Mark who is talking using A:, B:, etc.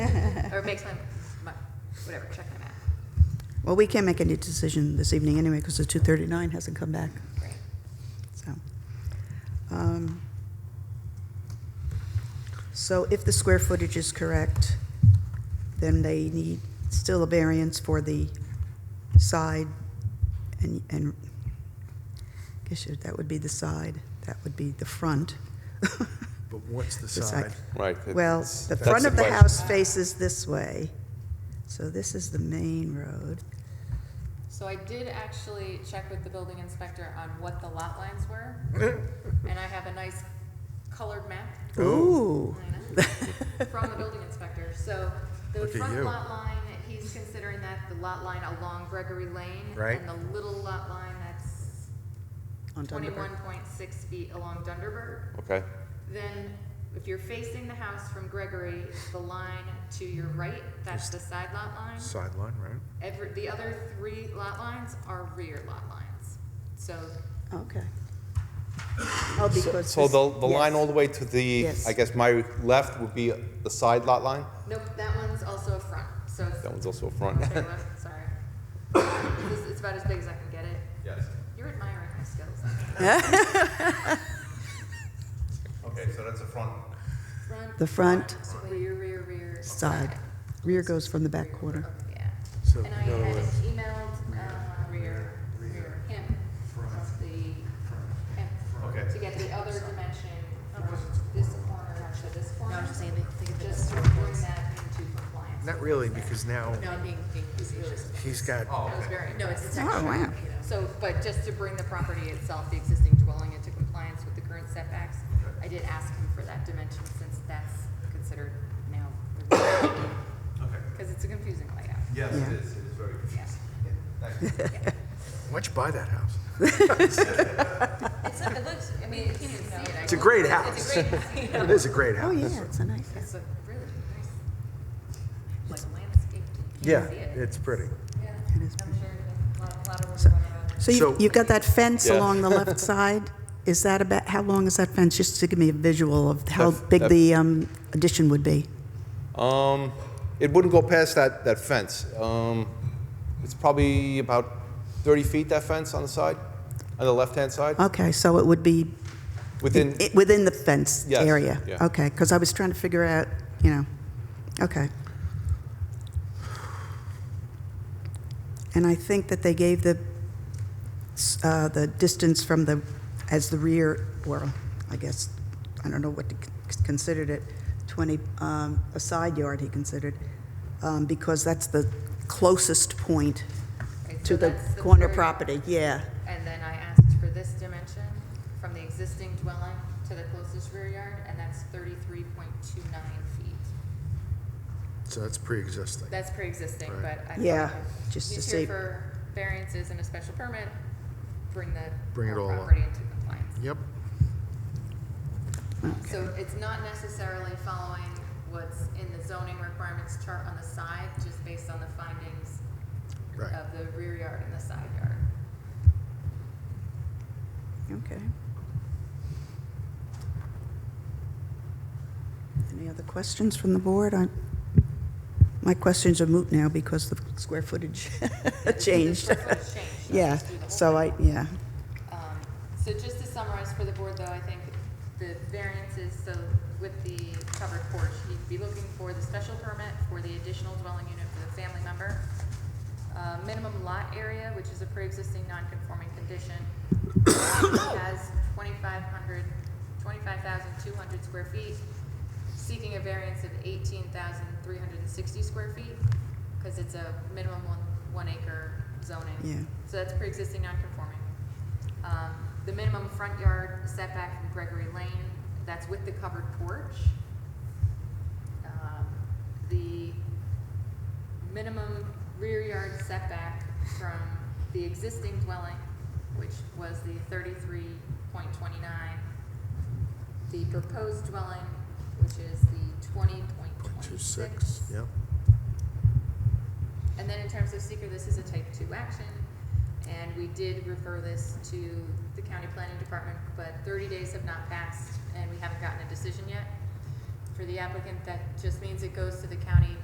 A: or makes my, my, whatever, check my map.
B: Well, we can't make any decision this evening anyway, because the 239 hasn't come back,
A: Great.
B: so. um, So if the square footage is correct, then they need still a variance for the side, and, and, I guess you- that would be the side, that would be the front.
C: But what's the
B: The side.
C: side?
D: Right.
B: Well,
D: it's-
B: the
D: that's
B: front of the
D: question.
B: house faces this way, so this is the main road.
A: So I did actually check with the building inspector on what the lot lines were, and I have a nice colored map
B: Ooh,
A: I know. from the building inspector. So the
C: Look at
A: front
C: you.
A: lot line, he's considering that the lot line along Gregory Lane.
C: Right.
A: And the little lot line that's
B: on Dunderberg.
A: twenty-one point six feet along Dunderberg.
D: Okay,
A: Then, if you're facing the house from Gregory, the line to your right, that's the side lot line.
C: Sideline, right?
A: Every, the other three lot lines are rear lot lines. So,
B: Okay. Oh, because.
D: so the, the
B: yes.
D: line all the way to the,
B: Yes.
D: I guess my left would be the side lot line?
A: nope, that one's also a front, so it's.
D: That one's also a front.
A: Okay, left, Sorry. This, it's about as big as I can get it.
D: Yes.
A: You're admiring my skills.
D: Okay, so that's a front.
A: Front.
B: The front.
A: Rear, rear, rear. Oh,
B: Side. Rear goes from the back corner.
A: Yeah.
C: So,
A: And I
C: no,
A: had
C: uh,
A: emailed, uh, rear, rear, him, of the, him,
D: Okay.
A: to get the other dimension from this corner to this corner.
E: I'm just saying they think of it
A: Just to bring that into compliance.
C: Not really, because now
E: No, I'm being, being facetious.
C: he's got,
A: That was very, no, it's
B: Oh, wow.
A: So, but just to bring the property itself, the existing dwelling into compliance with the current setbacks, I did ask him for that dimension since that's considered now. Because it's a confusing layout.
D: Yes,
B: it Yeah.
D: is, it is very.
A: Yeah.
C: why'd you buy that house?
E: It's, it looks, I mean, you can't even see it.
C: It's a great house.
E: It's a great,
C: It is a great
B: Oh,
C: house.
B: yeah, it's a nice.
A: It's a really nice, like landscape. You
C: Yeah,
A: can't see it.
C: it's pretty.
B: It is pretty.
E: I'm sure a lot, a lot of women want around.
B: So you-
C: So-
B: you've got that fence
D: Yeah.
B: along the left side? Is that about, how long is that fence? Just to give me a visual of how
D: That-
B: big
D: that-
B: the um, addition would be.
D: Um, it wouldn't go past that, that fence. Um, it's probably about thirty feet, that fence on the side, on the left-hand side,
B: Okay, so it would be
D: within,
B: i- within the fence
D: Yes,
B: area?
D: yeah.
B: Okay, because I was trying to figure out, you know, okay. And I think that they gave the, s- uh, the distance from the, as the rear, or I guess, I don't know what they c- considered it, 20, um, a side yard he considered, um, because that's the closest point
A: Okay, so
B: to the
A: that's
B: corner
A: rear-
B: property, yeah.
A: And then I asked for this dimension from the existing dwelling to the closest rear yard, and that's thirty-three point two nine feet.
C: So that's pre-existing.
A: That's pre-existing,
C: Right.
A: but I. thought
B: Yeah,
A: if
B: just to
A: he's
B: see-
A: here for variances and a special permit, bring the.
C: Bring it
A: whole
C: all up.
A: Property into compliance.
C: Yep.
A: So it's not necessarily following what's in the zoning requirements chart on the side, just based on the findings
C: Right.
A: of the rear yard and the side yard.
B: Okay. Any other questions from the board? I- My questions are moot now because the square footage
A: The
B: changed.
A: square footage changed, so
B: Yeah,
A: just do the whole
B: so
A: thing.
B: I, yeah,
A: Um, So just to summarize for the board, though, I think the variances, so with the covered porch, you'd be looking for the special permit for the additional dwelling unit for the family member, uh, minimum lot area, which is a pre-existing non-conforming condition, has 2,500, 25,200 square feet, seeking a variance of 18,360 square feet, because it's a minimum one, one acre zoning.
B: Yeah.
A: So that's pre-existing non-conforming. Um, The minimum front yard setback from Gregory Lane, that's with the covered porch. Um, The minimum rear yard setback from the existing dwelling, which was the thirty-three point twenty-nine. The proposed dwelling, which is the twenty point
C: Two
A: twenty-six.
C: six, yep.
A: And then in terms of seeker, this is a type two action, and we did refer this to the county planning department, but thirty days have not passed, and we haven't gotten a decision yet. For the applicant, that just means it goes to the county